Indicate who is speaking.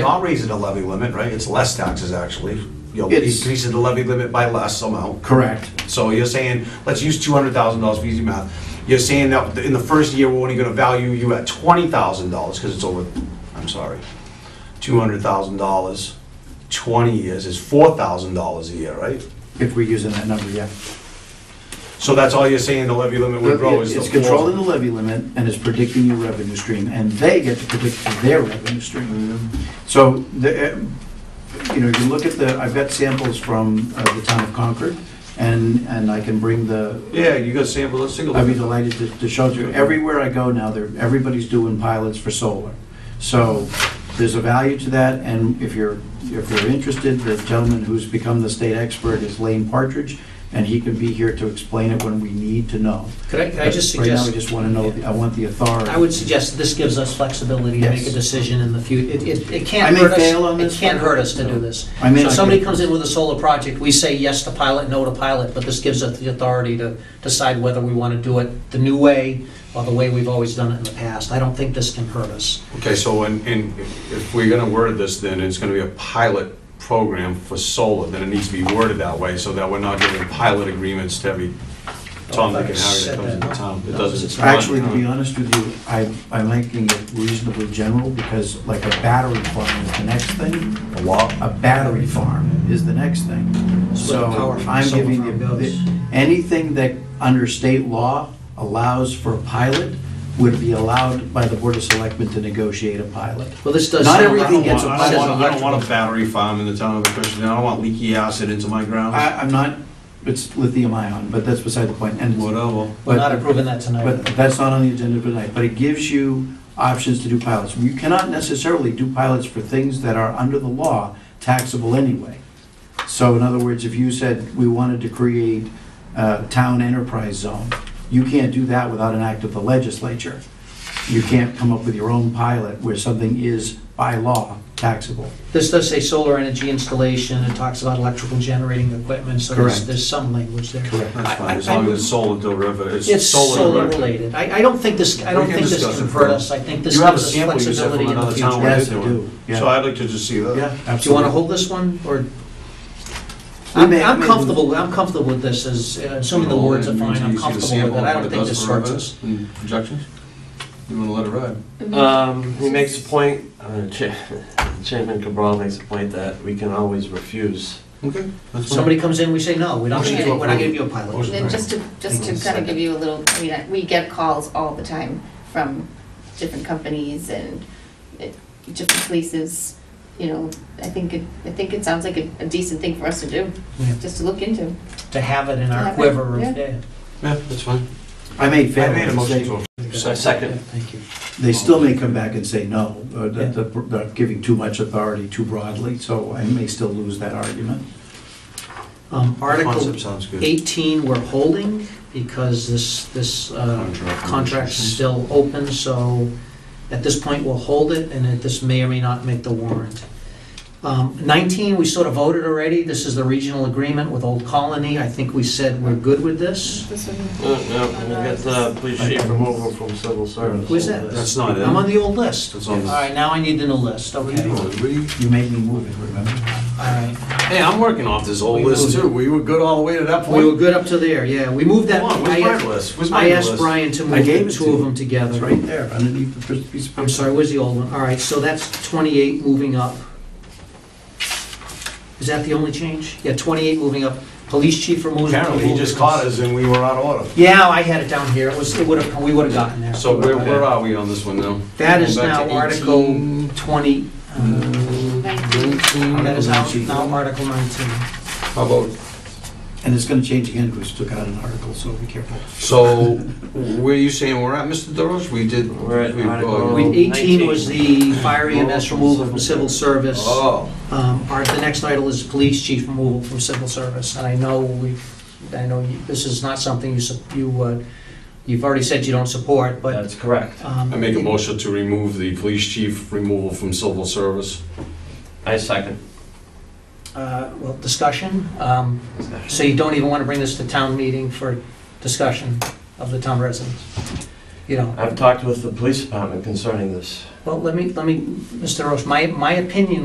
Speaker 1: Not raising the levy limit, right? It's less taxes, actually. You'll
Speaker 2: It's-
Speaker 1: increase the levy limit by less amount.
Speaker 2: Correct.
Speaker 1: So you're saying, let's use two hundred thousand dollars for easy math. You're saying that in the first year, we're only gonna value you at twenty thousand dollars, because it's over, I'm sorry, two hundred thousand dollars, twenty years is four thousand dollars a year, right?
Speaker 2: If we're using that number, yeah.
Speaker 1: So that's all you're saying the levy limit would grow is the
Speaker 2: It's controlling the
Speaker 1: four?
Speaker 2: levy limit and it's predicting your revenue stream, and they get to predict their revenue stream. So, the, uh, you know, you look at the, I've got samples from uh, the town of Concord, and, and I can bring the,
Speaker 1: Yeah, you got sample, let's take a
Speaker 2: I'd be
Speaker 1: look.
Speaker 2: delighted to, to show you. Everywhere I go now, there, everybody's doing pilots for solar. So there's a value to that, and if you're, if you're interested, the gentleman who's become the state expert is Lane Partridge, and he can be here to explain it when we need to know.
Speaker 3: Could I, could I just
Speaker 2: Right now, we
Speaker 3: suggest,
Speaker 2: just want to know, the- I want the authority.
Speaker 3: I would suggest this gives us flexibility to make a
Speaker 2: Yes.
Speaker 3: decision in the future. It, it, it
Speaker 2: I
Speaker 3: can't
Speaker 2: may
Speaker 3: hurt us.
Speaker 2: fail on this
Speaker 3: It can't
Speaker 2: one.
Speaker 3: hurt us to do this.
Speaker 2: I may
Speaker 3: So
Speaker 2: not
Speaker 3: somebody
Speaker 2: get-
Speaker 3: comes in with a solar project, we say yes to pilot, no to pilot, but this gives us the authority to decide whether we want to do it the new way or the way we've always done it in the past. I don't think this can hurt us.
Speaker 1: Okay, so in, in, if we're gonna word this, then it's gonna be a pilot program for solar, then it needs to be worded that way, so that we're not giving pilot agreements to every Tom, Dick, and Harry that comes into town. It doesn't. it's not-
Speaker 2: Actually, to be honest with you, I, I'm making it reasonably general, because like a battery farm is the next thing,
Speaker 1: A lot.
Speaker 2: a battery farm is the next thing.
Speaker 3: That's what
Speaker 2: So
Speaker 3: the power from
Speaker 2: I'm
Speaker 3: solar
Speaker 2: giving you,
Speaker 3: farm goes.
Speaker 2: the- anything that under state law allows for a pilot would be allowed by the Board of Selectmen to negotiate a pilot.
Speaker 3: Well, this does.
Speaker 2: Not
Speaker 3: sound
Speaker 1: I don't
Speaker 2: everything
Speaker 3: like-
Speaker 2: gets
Speaker 1: want,
Speaker 2: a
Speaker 1: I
Speaker 3: says
Speaker 1: don't want, I don't
Speaker 3: electrical.
Speaker 1: want a battery farm in the town of Acushnet, I don't want leaky acid into my ground,
Speaker 2: I, I'm not, it's lithium ion, but that's beside the point, and,
Speaker 1: whatever.
Speaker 3: We're not approving that tonight.
Speaker 2: but that's not on the agenda tonight, but it gives you options to do pilots. You cannot necessarily do pilots for things that are under the law taxable anyway. So in other words, if you said we wanted to create a town enterprise zone, you can't do that without an act of the legislature. You can't come up with your own pilot where something is by law taxable.
Speaker 3: This does say solar energy installation, it talks about electrical generating equipment, so there's,
Speaker 2: Correct.
Speaker 3: there's some language there.
Speaker 2: Correct.
Speaker 1: That's fine,
Speaker 3: I-
Speaker 1: as
Speaker 3: I-
Speaker 1: long as it's solar derivative,
Speaker 3: It's
Speaker 1: it's solar
Speaker 3: solar
Speaker 1: derivative.
Speaker 3: related. I, I don't think this, I don't
Speaker 1: We can
Speaker 3: think this
Speaker 1: discuss
Speaker 3: can
Speaker 1: it
Speaker 3: hurt
Speaker 1: further.
Speaker 3: us. I think this
Speaker 1: You have a
Speaker 3: gives us
Speaker 1: sample you said
Speaker 3: flexibility
Speaker 1: from
Speaker 3: in the
Speaker 1: another town
Speaker 3: future.
Speaker 1: where
Speaker 2: Yes,
Speaker 1: they're
Speaker 2: I
Speaker 1: doing
Speaker 2: do,
Speaker 1: it.
Speaker 2: yeah.
Speaker 1: So I'd like to just see
Speaker 2: Yeah,
Speaker 1: that.
Speaker 2: absolutely.
Speaker 3: Do you want to hold this one, or?
Speaker 2: We
Speaker 3: I'm
Speaker 2: may-
Speaker 3: I'm
Speaker 2: may-
Speaker 3: comfortable, I'm comfortable with this, as, uh, assuming the words are fine, I'm comfortable with it. I don't think this hurts us.
Speaker 1: And projections? You wanna let it ride?
Speaker 4: Um, he makes a point, uh, Cha- Chairman Cabral makes a point that we can always refuse.
Speaker 1: Okay. that's fine.
Speaker 3: Somebody comes in, we say, no, we don't,
Speaker 5: Motion
Speaker 3: need
Speaker 5: to
Speaker 3: it. we're not
Speaker 1: approve.
Speaker 3: giving you a pilot.
Speaker 1: Motion.
Speaker 5: And just to, just to kind of give you a little, I mean, we get calls all the time from different companies and uh, different places, you know, I think it, I think it sounds like a a decent thing for us to do,
Speaker 3: Yeah.
Speaker 5: just to look into.
Speaker 3: To have it in
Speaker 5: To
Speaker 3: our
Speaker 5: have it,
Speaker 3: quiver, of-
Speaker 5: yeah.
Speaker 3: yeah.
Speaker 1: Yeah, that's fine.
Speaker 2: I made
Speaker 1: I
Speaker 2: fair.
Speaker 1: made a motion to
Speaker 4: So second,
Speaker 3: Thank you.
Speaker 2: They still may come back and say no, uh, that that they're giving too much authority too broadly, so I may still lose that argument.
Speaker 3: Um, Article
Speaker 1: Concept sounds good.
Speaker 3: 18, we're holding, because this, this uh,
Speaker 1: Contract.
Speaker 3: contract's still open, so at this point, we'll hold it, and it- this may or may not make the warrant. Um, 19, we sort of voted already, this is the regional agreement with Old Colony, I think we said we're good with this.
Speaker 5: This
Speaker 4: uh, no, we got the police chief removal from civil service.
Speaker 3: Where's that?
Speaker 1: That's not it.
Speaker 3: I'm on the old list.
Speaker 1: That's
Speaker 3: All
Speaker 1: on
Speaker 3: right, now I need the new list, okay. All
Speaker 1: Oh, we-
Speaker 2: You made me move it, remember?
Speaker 3: right,
Speaker 1: Hey, I'm working off this whole
Speaker 3: We
Speaker 1: list
Speaker 3: moved it.
Speaker 1: too. We were good all the way to that
Speaker 3: we were
Speaker 1: point.
Speaker 3: good up to there, yeah, we moved that.
Speaker 1: Come on, where's
Speaker 3: I-
Speaker 1: my list? Where's my
Speaker 3: I asked
Speaker 1: list?
Speaker 3: Brian to
Speaker 2: I
Speaker 3: move
Speaker 2: gave
Speaker 3: the
Speaker 2: it
Speaker 3: two
Speaker 2: to
Speaker 3: of
Speaker 2: you.
Speaker 3: them together.
Speaker 2: It's right there, underneath the first piece of
Speaker 3: I'm sorry, where's the old one? All right, so that's 28 moving up. Is that the only change? Yeah, 28 moving up. Police chief removes.
Speaker 1: Apparently, he just caught us and we were out of order.
Speaker 3: Yeah, I had it down here. It was, it would have, we would have gotten there.
Speaker 1: So where, where are we on this one now?
Speaker 3: That is
Speaker 1: Going back
Speaker 3: now
Speaker 1: to
Speaker 3: Article
Speaker 1: 18.
Speaker 3: 20, uh, that is now
Speaker 2: Nineteen.
Speaker 3: now Article 19.
Speaker 1: How about,
Speaker 2: And it's gonna change again, because we took out an article, so be careful.
Speaker 1: so where are you saying we're at, Mr. Deros? We did.
Speaker 4: We're at
Speaker 1: we- uh,
Speaker 4: Article-
Speaker 3: We- 18 was
Speaker 4: 19.
Speaker 3: the fire EMS removal from civil service.
Speaker 1: Oh,
Speaker 3: Um, Our, the next item is police chief removal from civil service, and I know we, I know you- this is not something you, su- you, uh, you've already said you don't support, but.
Speaker 4: That's correct.
Speaker 3: um,
Speaker 1: I make a motion to remove the police chief removal from civil service.
Speaker 4: I second.
Speaker 3: uh, Well, discussion, um, so you don't even want to bring this to town meeting for discussion of the town residents. you know.
Speaker 4: I've talked with the police department concerning this.
Speaker 3: Well, let me, let me, Mr. Roche, my, my opinion